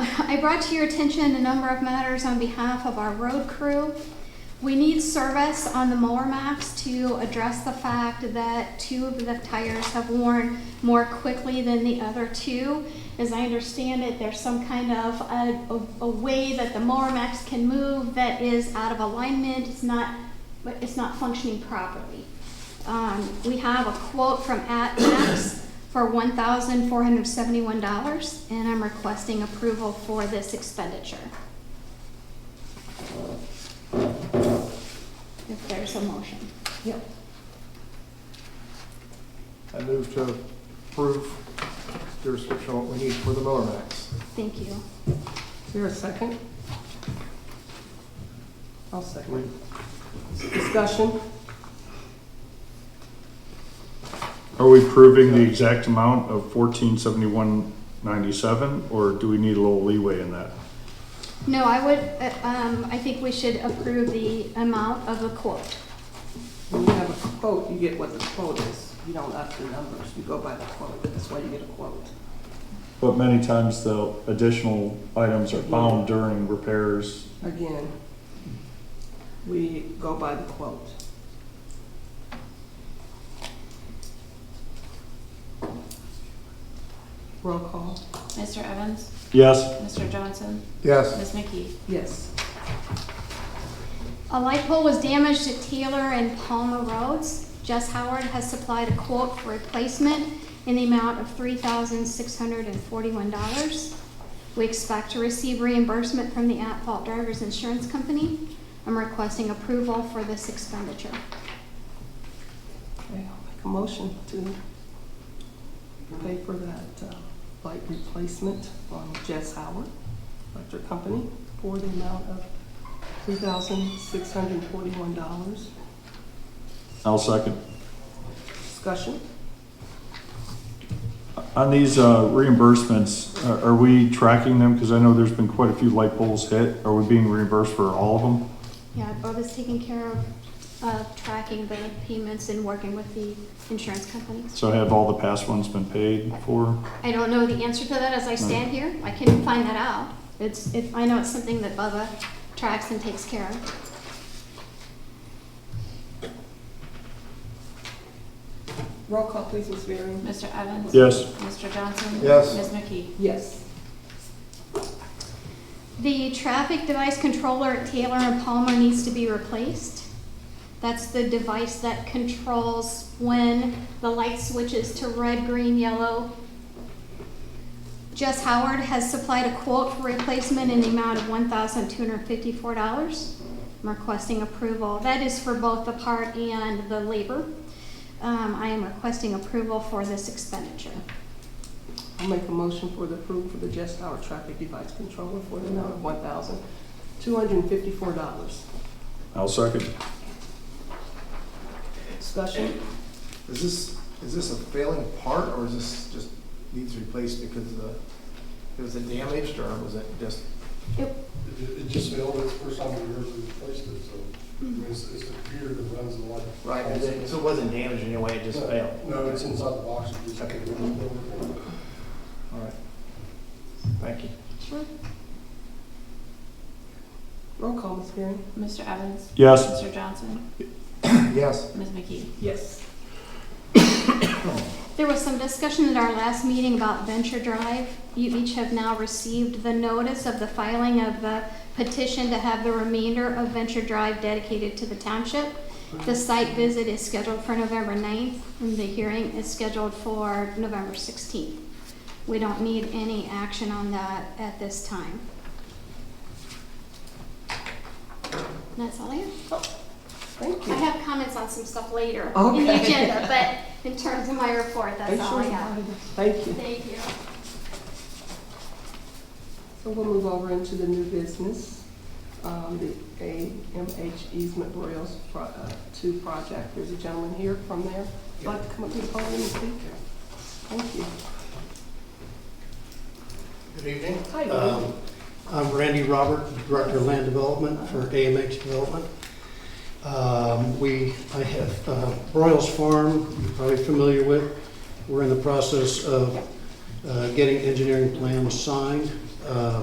I brought to your attention a number of matters on behalf of our road crew. We need service on the mower maps to address the fact that two of the tires have worn more quickly than the other two. As I understand it, there's some kind of a, a, a way that the mower maps can move that is out of alignment, it's not, but it's not functioning properly. Um, we have a quote from AtMax for one thousand four hundred seventy-one dollars, and I'm requesting approval for this expenditure. If there's a motion. Yep. I move to approve the restriction on what we need for the mower max. Thank you. Is there a second? I'll second. We- Discussion? Are we proving the exact amount of fourteen seventy-one ninety-seven, or do we need a little leeway in that? No, I would, uh, um, I think we should approve the amount of the quote. When you have a quote, you get what the quote is. You don't up the numbers, you go by the quote. That's why you get a quote. But many times the additional items are found during repairs. Again, we go by the quote. Roll call? Mr. Evans? Yes, Mr. Johnson? Yes, Ms. McKee? Yes. A light pole was damaged at Taylor and Palmer Roads. Jess Howard has supplied a quote for replacement in the amount of three thousand six hundred and forty-one dollars. We expect to receive reimbursement from the at-fault driver's insurance company. I'm requesting approval for this expenditure. Okay, I'll make a motion to pay for that uh, light replacement on Jess Howard Electric Company for the amount of $3,641. I'll second. Discussion? On these uh, reimbursements, uh, are- are we tracking them? Because I know there's been quite a few light poles hit. Are we being reimbursed for all of them? Yeah, Bob is taking care of, of tracking the payments and working with the insurance companies. So have all the past ones been paid for? I don't know the answer to that as I stand here. I can find that out. It's, it, I know it's something that Bubba tracks and takes care of. Roll call, please, Ms. Varyn. Mr. Evans? Yes. Mr. Johnson? Yes. Ms. McKee? Yes. The traffic device controller at Taylor and Palmer needs to be replaced. That's the device that controls when the light switches to red, green, yellow. Jess Howard has supplied a quote for replacement in the amount of one thousand two hundred fifty-four dollars. I'm requesting approval. That is for both the part and the labor. Um, I am requesting approval for this expenditure. I'll make a motion for the approval for the Jess Howard Traffic Device Controller for the amount of $1,254. I'll second. Discussion? is this, is this a failing part or is this just needs replaced because the, it was damaged or was it just? It, it just failed, it's the first time we ever replaced it, so, I mean, it's, it's the computer that runs the light. Right, and then- so it wasn't damaged in any way, it just No, failed? No, it's inside the box, you just have to. All right. Thank you. Sure. Roll call, Ms. Varyn. Mr. Evans? Yes. Mr. Johnson? Yes. Ms. McKee? Yes. There was some discussion at our last meeting about Venture Drive. You each have now received the notice of the filing of the petition to have the remainder of Venture Drive dedicated to the township. The site visit is scheduled for November 9th, and the hearing is scheduled for November 16th. We don't need any action on that at this time. And That's all I have. Thank I you. have comments on some stuff later in the Okay. agenda, but in terms of my report, that's all I have. Thank you. Thank you. So we'll move over into the new business, um, the AMH easement Broyles E pro- uh, Two project. There's a gentleman here from there. Would you Like to come up to the podium and speak? Thank you. Good evening. Hi, good Um, evening. I'm Randy Robert, Director of Land Development for AMH Development. Um, We, I have uh, Broyles Farm, you're probably familiar with. We're in the process of uh, getting engineering plans signed. Uh,